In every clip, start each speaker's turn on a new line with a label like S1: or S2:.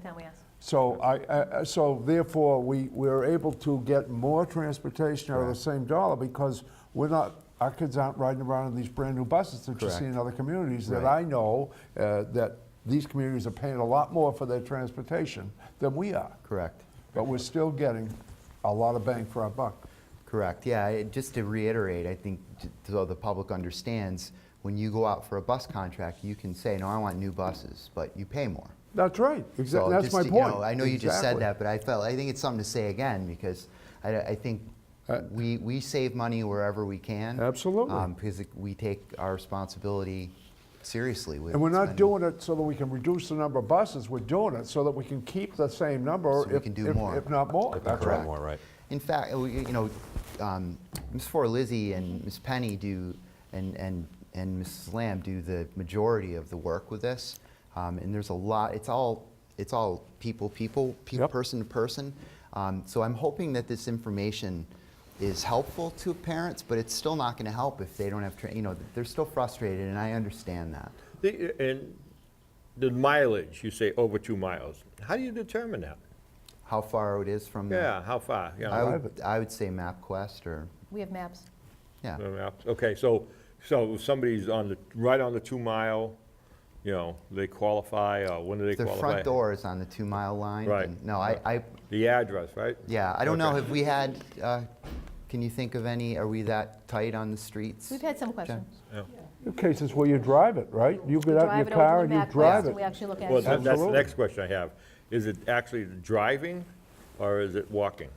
S1: time we asked.
S2: So I, I- I- so therefore, we, we're able to get more transportation out of the same dollar because we're not, our kids aren't riding around in these brand-new buses that you see in other communities that I
S3: Right.
S2: know, uh, that these communities are paying a lot more for their transportation than we are.
S3: Correct.
S2: But we're still getting a lot of bang for our buck.
S3: Correct, yeah, I- just to reiterate, I think, j- so the public understands, when you go out for a bus contract, you can say, no, I want new buses, but you pay more.
S2: That's right,
S3: So
S2: exactly, that's
S3: just
S2: my
S3: to- you know,
S2: point.
S3: I know you just said
S2: Exactly.
S3: that, but I felt, I think it's something to say again, because I, I think
S2: Uh,
S3: we, we save money wherever we can.
S2: Absolutely.
S3: um, Because it- we take our responsibility seriously with.
S2: And we're not
S3: spending-
S2: doing it so that we can reduce the number of buses, we're doing it so that we can keep the same number.
S3: So we
S2: if-
S3: can do
S2: if-
S3: more.
S2: If not more,
S4: If we
S2: that's
S4: grow
S2: right.
S4: more, right.
S3: In fact, uh, we- you know, um, Ms. Forlizzi and Ms. Penny do, and, and, and Mrs. Lamb do the majority of the work with this. Um, and there's a lot, it's all, it's all people, people, pe-
S2: Yep.
S3: person to person. Um, so I'm hoping that this information is helpful to parents, but it's still not going to help if they don't have, tra- you know, they're still frustrated, and I understand that.
S4: The- And the mileage, you say over two miles. How do you determine that?
S3: How far it is from.
S4: Yeah, how far? you know?
S3: I would, I would say MapQuest or,
S1: We have maps.
S3: yeah.
S4: Uh, Okay, so, so if somebody's on the, right on the two mile, you know, they qualify, or when do they
S3: The
S4: qualify?
S3: front door is on the two mile line.
S4: Right.
S3: and- No, I, I,
S4: The address, right?
S3: Yeah, I don't know,
S4: Okay.
S3: have we had, uh, can you think of any, are we that tight on the streets?
S1: We've had some questions.
S2: There are Cases where you drive it, right? You
S1: We
S2: get out in
S1: drive
S2: your
S1: it over to
S2: car
S1: the
S2: and you
S1: map
S2: drive
S1: list
S2: it.
S1: and we actually look at
S4: Well,
S1: it.
S4: that- that's the
S2: Absolutely.
S4: next question I have. Is it actually driving or is it walking?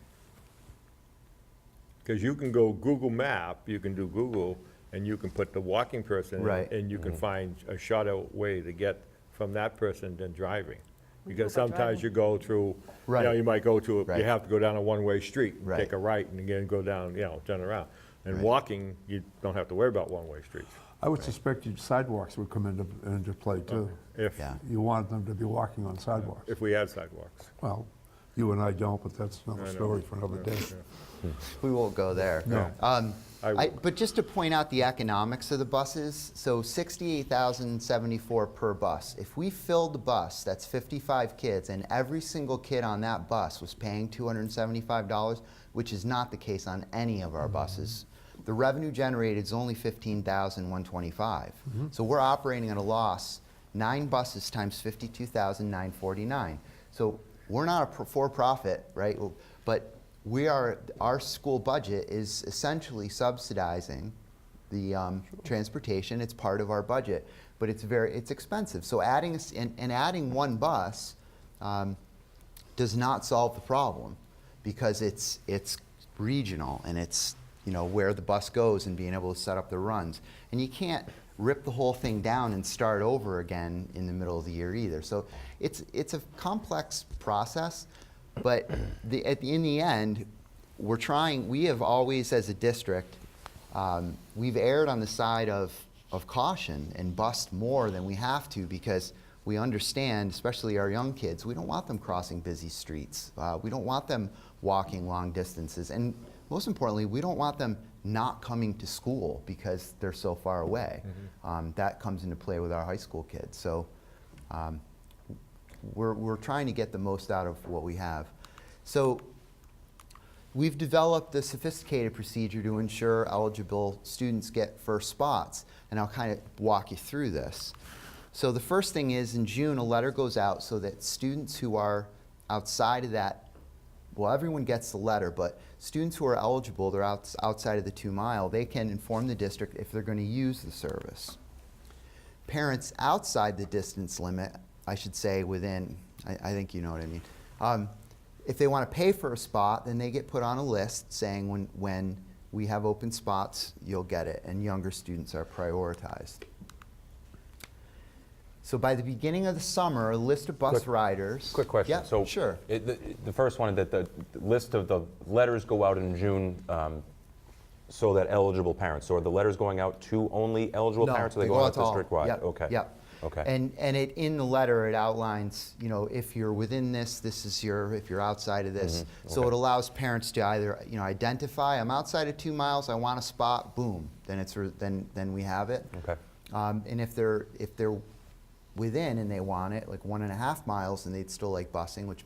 S4: Because you can go Google Map, you can do Google, and you can put the walking person. in,
S3: Right. Mm-hmm.
S4: And you can find a shorter way to get from that person than driving.
S1: We
S4: Because
S1: go by
S4: sometimes
S1: driving.
S4: you go through, you know,
S3: Right.
S4: you might go to, a- you
S3: Right.
S4: have to go down a one-way street.
S3: Right.
S4: Take a right and again go down, you know, turn around. And
S3: Right.
S4: walking, you don't have to worry about one-way streets.
S2: I would suspect you- sidewalks would come into, into play too.
S4: If,
S3: Yeah.
S2: You want them to be walking on sidewalks.
S4: if we had sidewalks.
S2: Well, you and I don't, but that's
S4: I
S2: another
S4: know.
S2: story for another day.
S4: Yeah.
S3: We won't go there.
S2: No.
S3: Um,
S4: I
S3: I,
S4: will.
S3: but just to point out the economics of the buses, so sixty-eight thousand seventy-four per bus. If we filled the bus, that's fifty-five kids, and every single kid on that bus was paying two hundred and seventy-five dollars, which is not the case on any of our buses. The revenue generated is only fifteen thousand one twenty-five. So we're operating at a loss, nine buses times fifty-two thousand nine forty-nine. So we're not a pro- for-profit, right? But we are, our school budget is essentially subsidizing the um, transportation. It's part of our budget, but it's very, it's expensive. So adding, s- and and adding one bus um, does not solve the problem because it's, it's regional and it's, you know, where the bus goes and being able to set up the runs. And you can't rip the whole thing down and start over again in the middle of the year either. So it's, it's a complex process, but the, at the, in the end, we're trying, we have always, as a district, um, we've erred on the side of, of caution and bust more than we have to because we understand, especially our young kids, we don't want them crossing busy streets. Uh, we don't want them walking long distances. And most importantly, we don't want them not coming to school because they're so far away. Um, that comes into play with our high school kids. So um, we're, we're trying to get the most out of what we have. So We've developed a sophisticated procedure to ensure eligible students get first spots, and I'll kind of walk you through this. So the first thing is in June, a letter goes out so that students who are outside of that, well, everyone gets the letter, but students who are eligible, they're outs- outside of the two mile, they can inform the district if they're going to use the service parents outside the distance limit, I should say within, I, I think you know what I mean. Um, if they want to pay for a spot, then they get put on a list saying when, when we have open spots, you'll get it, and younger students are prioritized. So by the beginning of the summer, a list of bus
S5: Quick-
S3: riders.
S5: Quick question.
S3: Yeah,
S5: so
S3: sure.
S5: it- the, the first one that the, the list of the letters go out in June. Um, so that eligible parents. So are the letters going out to only eligible
S3: No,
S5: parents, or they, go, out
S3: to all.
S5: district wide?
S3: Yep,
S5: Okay.
S3: Yep.
S5: Okay.
S3: And and it in the letter it outlines, you know, if you're within this, this is your. If you're outside of this, so
S5: Mm-hmm, okay.
S3: it allows parents to either, you know, identify. I'm outside of two miles. I want a spot. Boom. Then it's re- then then we have it.
S5: okay.
S3: Um, and if they're if they're within and they want it, like one and a half miles, and they'd still like busing, which